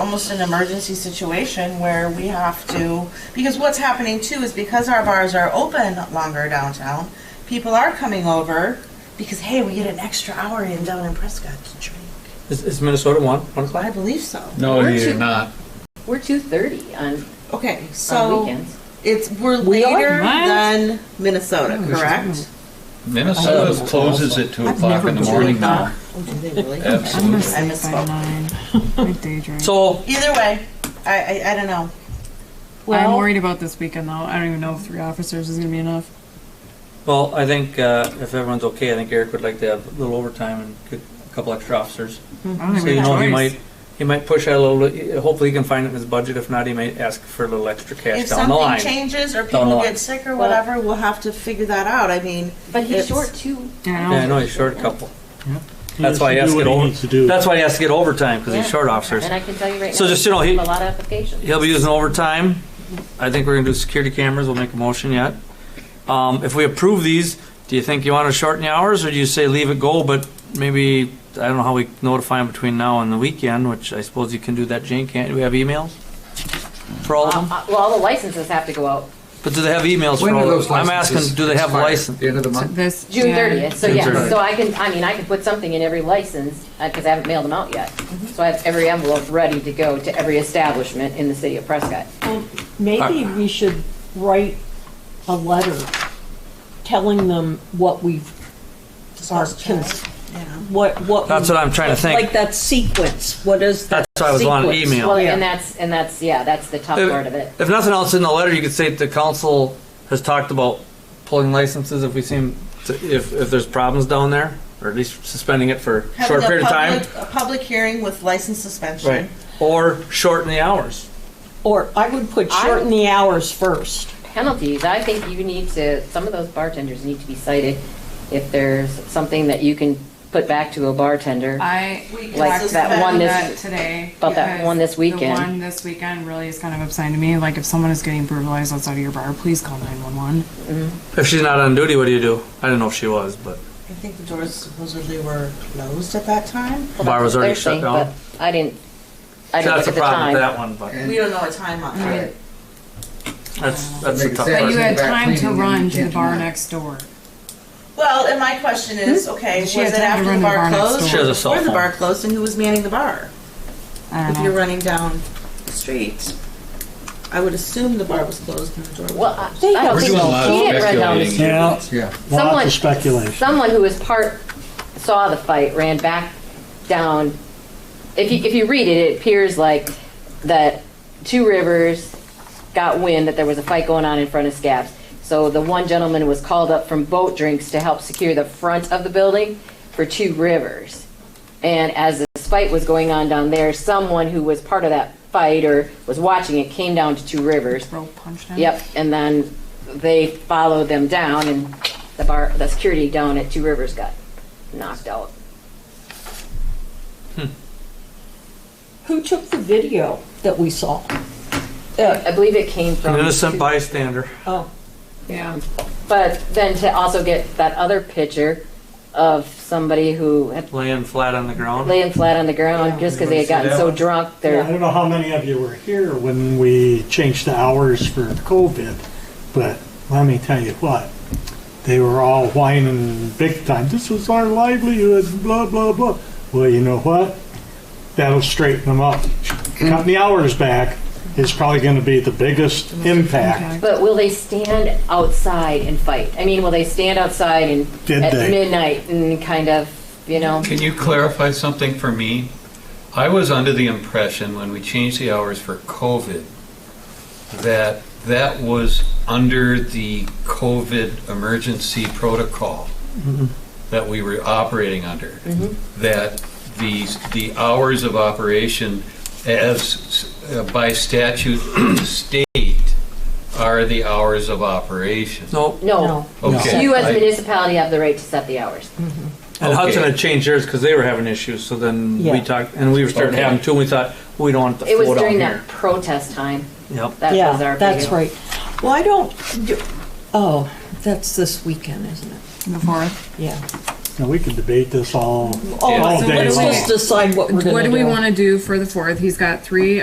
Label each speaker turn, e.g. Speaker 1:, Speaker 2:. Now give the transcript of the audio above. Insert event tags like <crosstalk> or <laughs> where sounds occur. Speaker 1: almost an emergency situation where we have to, because what's happening too is because our bars are open longer downtown, people are coming over because, hey, we get an extra hour in down in Prescott to drink.
Speaker 2: Is, is Minnesota one? one
Speaker 1: Well, I believe so.
Speaker 3: No,
Speaker 4: Weren't
Speaker 3: you're
Speaker 4: you-
Speaker 3: not.
Speaker 4: We're two thirty on,
Speaker 1: Okay,
Speaker 4: on
Speaker 1: so
Speaker 4: weekends.
Speaker 1: it's, we're
Speaker 4: We are?
Speaker 1: later
Speaker 4: What?
Speaker 1: than Minnesota, correct?
Speaker 3: Minnesota
Speaker 2: Oh.
Speaker 3: closes at Mm-hmm. two o'clock in the
Speaker 1: Do
Speaker 3: morning
Speaker 1: they
Speaker 3: now.
Speaker 1: not? Oh, do they really?
Speaker 3: Absolutely.
Speaker 5: I'm gonna
Speaker 1: I
Speaker 5: sleep by
Speaker 1: misspoke.
Speaker 5: <laughs> nine. I daydream.
Speaker 2: So,
Speaker 1: Either way, I, I, I don't know.
Speaker 5: I'm
Speaker 4: Well-
Speaker 5: worried about this weekend though. I don't even know if three officers is gonna be enough.
Speaker 2: well, I think uh, if everyone's okay, I think Eric would like to have a little overtime and get a couple extra officers.
Speaker 5: I don't
Speaker 2: So
Speaker 5: even
Speaker 2: you
Speaker 5: have
Speaker 2: know,
Speaker 5: a
Speaker 2: he
Speaker 5: choice.
Speaker 2: might he might push out a little. Hopefully, he can find it in his budget. If not, he might ask for a little extra cash
Speaker 1: If
Speaker 2: down the
Speaker 1: something
Speaker 2: line.
Speaker 1: changes or
Speaker 2: the
Speaker 1: people
Speaker 2: line.
Speaker 1: get sick or
Speaker 4: Well-
Speaker 1: whatever, we'll have to figure that out. I mean,
Speaker 4: But he's
Speaker 1: It's-
Speaker 4: short too.
Speaker 5: Yeah, I
Speaker 2: Yeah, I
Speaker 5: know.
Speaker 2: know he's short a couple.
Speaker 6: He
Speaker 2: That's why I
Speaker 6: has
Speaker 2: asked
Speaker 6: to
Speaker 2: it
Speaker 6: do what he
Speaker 2: over.
Speaker 6: needs to do.
Speaker 2: That's why he has to get overtime because he's
Speaker 4: Yeah.
Speaker 2: short officers.
Speaker 4: And I can tell you right now.
Speaker 2: So just, you know,
Speaker 4: we
Speaker 2: he-
Speaker 4: have A lot of applications.
Speaker 2: He'll be using overtime. I think we're gonna do security cameras. We'll make a motion yet. Um, if we approve these, do you think you wanna shorten the hours or do you say leave it go, but maybe, I don't know how we notify them between now and the weekend, which I suppose you can do that, Jane, can't, do we have emails? For all of
Speaker 4: Uh,
Speaker 2: them?
Speaker 4: uh, Well, all the licenses have to go out
Speaker 2: But do they have emails for
Speaker 7: When
Speaker 2: all
Speaker 7: are
Speaker 2: of
Speaker 7: those
Speaker 2: them? I'm asking,
Speaker 7: licenses
Speaker 2: do they have
Speaker 7: expire?
Speaker 2: license?
Speaker 7: The end of the
Speaker 5: So
Speaker 7: month?
Speaker 5: This
Speaker 4: June
Speaker 5: yeah.
Speaker 4: thirtieth, so
Speaker 2: June
Speaker 4: yeah,
Speaker 2: 30th.
Speaker 4: so I can, I mean, I could put something in every license, because I haven't mailed them out yet. So I have every envelope ready to go to every establishment in the city of Prescott.
Speaker 8: Maybe we should write a letter telling them what we are,
Speaker 1: Discuss
Speaker 8: cons-
Speaker 1: yeah.
Speaker 8: what, what.
Speaker 2: That's
Speaker 8: we-
Speaker 2: what I'm trying to think.
Speaker 8: Like that sequence, what is that?
Speaker 2: That's why I was wanting
Speaker 8: sequence?
Speaker 2: email.
Speaker 4: Well,
Speaker 8: Yeah.
Speaker 4: and that's, and that's, yeah, that's the tough part of it.
Speaker 2: If nothing else in the letter, you could say the council has talked about pulling licenses if we seem, to- if, if there's problems down there, or at least suspending it for a
Speaker 1: Having
Speaker 2: short
Speaker 1: a
Speaker 2: period of time.
Speaker 1: public- A public hearing with license suspension.
Speaker 2: Right. Or shorten the hours.
Speaker 8: Or I would put
Speaker 4: I-
Speaker 8: shorten the hours first.
Speaker 4: Penalties, I think you need to, some of those bartenders need to be cited if there's something that you can put back to a bartender.
Speaker 5: I
Speaker 1: We
Speaker 4: Like
Speaker 5: talked
Speaker 4: that one
Speaker 5: about
Speaker 4: this-
Speaker 5: today.
Speaker 4: about that
Speaker 5: because
Speaker 4: one this weekend.
Speaker 5: The one this weekend really is kind of upsetting to me. Like if someone is getting brutalized outside of your bar, please call nine one one.
Speaker 2: If she's not on duty, what do you do? I don't know if she was, but
Speaker 1: I think the doors supposedly were closed at that time.
Speaker 4: Well,
Speaker 2: Bar was
Speaker 4: that's what
Speaker 2: already
Speaker 4: they're
Speaker 2: shut
Speaker 4: saying,
Speaker 2: down.
Speaker 4: but I didn't, I didn't
Speaker 2: that's
Speaker 4: look
Speaker 2: a
Speaker 4: at the
Speaker 2: problem with
Speaker 4: time.
Speaker 2: that one. But
Speaker 1: We don't know a time on
Speaker 5: Right.
Speaker 1: that.
Speaker 2: that's that's a
Speaker 7: Make it
Speaker 2: tough
Speaker 7: sad.
Speaker 5: But
Speaker 2: part.
Speaker 5: you had
Speaker 7: Back
Speaker 5: time to
Speaker 7: cleaning, you
Speaker 5: run to
Speaker 7: can't
Speaker 5: the
Speaker 7: do
Speaker 5: bar
Speaker 7: that.
Speaker 5: next door.
Speaker 1: Well, and my question is, okay, was
Speaker 5: She
Speaker 1: it
Speaker 5: had time to
Speaker 1: after
Speaker 5: run
Speaker 1: the
Speaker 5: the
Speaker 1: bar
Speaker 5: bar next
Speaker 1: closed?
Speaker 5: door.
Speaker 2: She has a cell
Speaker 1: Before the
Speaker 2: phone.
Speaker 1: bar closed and who was manning the bar?
Speaker 5: I
Speaker 1: If
Speaker 5: don't
Speaker 1: you're
Speaker 5: know.
Speaker 1: running down the street, I would assume the bar was closed and the door
Speaker 4: Well,
Speaker 1: was
Speaker 4: I I
Speaker 1: closed.
Speaker 4: don't think,
Speaker 7: We're
Speaker 4: she
Speaker 3: doing a lot of
Speaker 4: didn't run down the
Speaker 3: speculating.
Speaker 4: street.
Speaker 6: Yeah,
Speaker 7: Yeah.
Speaker 6: lots
Speaker 4: Someone-
Speaker 6: of speculation.
Speaker 4: someone who was part, saw the fight, ran back down. If you, if you read it, it appears like that Two Rivers got wind that there was a fight going on in front of Scabs. So the one gentleman was called up from boat drinks to help secure the front of the building for Two Rivers. And as this fight was going on down there, someone who was part of that fight or was watching it came down to Two Rivers
Speaker 5: Bro punched him.
Speaker 4: Yep, and then they followed them down and the bar, the security down at Two Rivers got knocked out.
Speaker 8: Who took the video that we saw? Uh,
Speaker 4: I believe it came from.
Speaker 2: An innocent
Speaker 4: Two-
Speaker 2: bystander.
Speaker 8: oh,
Speaker 5: Yeah.
Speaker 4: But then to also get that other picture of somebody who had
Speaker 2: Laying flat on the ground.
Speaker 4: laying flat on the ground just because they had gotten so drunk,
Speaker 6: I
Speaker 4: they're,
Speaker 6: don't know how many of you were here when we changed the hours for COVID, but let me tell you what, they were all whining big time. This was our livelihood, blah, blah, blah. Well, you know what? That'll straighten them up. Cutting the hours back is probably going to be the biggest impact.
Speaker 4: but will they stand outside and fight? I mean, will they stand outside and
Speaker 6: Did
Speaker 4: at
Speaker 6: they?
Speaker 4: midnight and kind of, you know?
Speaker 3: Can you clarify something for me? I was under the impression when we changed the hours for COVID, that that was under the COVID emergency protocol
Speaker 2: Mm-hmm.
Speaker 3: that we were operating under. That the, the hours of operation as uh, by statute state are the hours of operation.
Speaker 2: No.
Speaker 4: No.
Speaker 3: Okay.
Speaker 4: You as a
Speaker 3: I-
Speaker 4: municipality have the right to set the hours.
Speaker 2: And
Speaker 3: Okay.
Speaker 2: Hudson had changed theirs because they were having issues. So then we
Speaker 8: Yeah.
Speaker 2: talked, and we were starting
Speaker 3: Okay.
Speaker 2: to have them too. And we thought we don't want the
Speaker 4: It was
Speaker 2: flow down
Speaker 4: during
Speaker 2: here.
Speaker 4: that protest time.
Speaker 2: Yep.
Speaker 4: That
Speaker 8: yeah,
Speaker 4: was our
Speaker 8: that's
Speaker 4: video.
Speaker 8: right. Well, I don't, do- oh, that's this weekend, isn't it?
Speaker 5: The fourth.
Speaker 8: Yeah.
Speaker 6: Now, we could debate this all,
Speaker 8: Oh,
Speaker 3: Yeah.
Speaker 6: all
Speaker 5: So
Speaker 6: day
Speaker 5: what do
Speaker 8: Let's
Speaker 5: we-
Speaker 6: long.
Speaker 8: just decide what we're gonna
Speaker 5: What do
Speaker 8: do.
Speaker 5: we want to do for the fourth? He's got three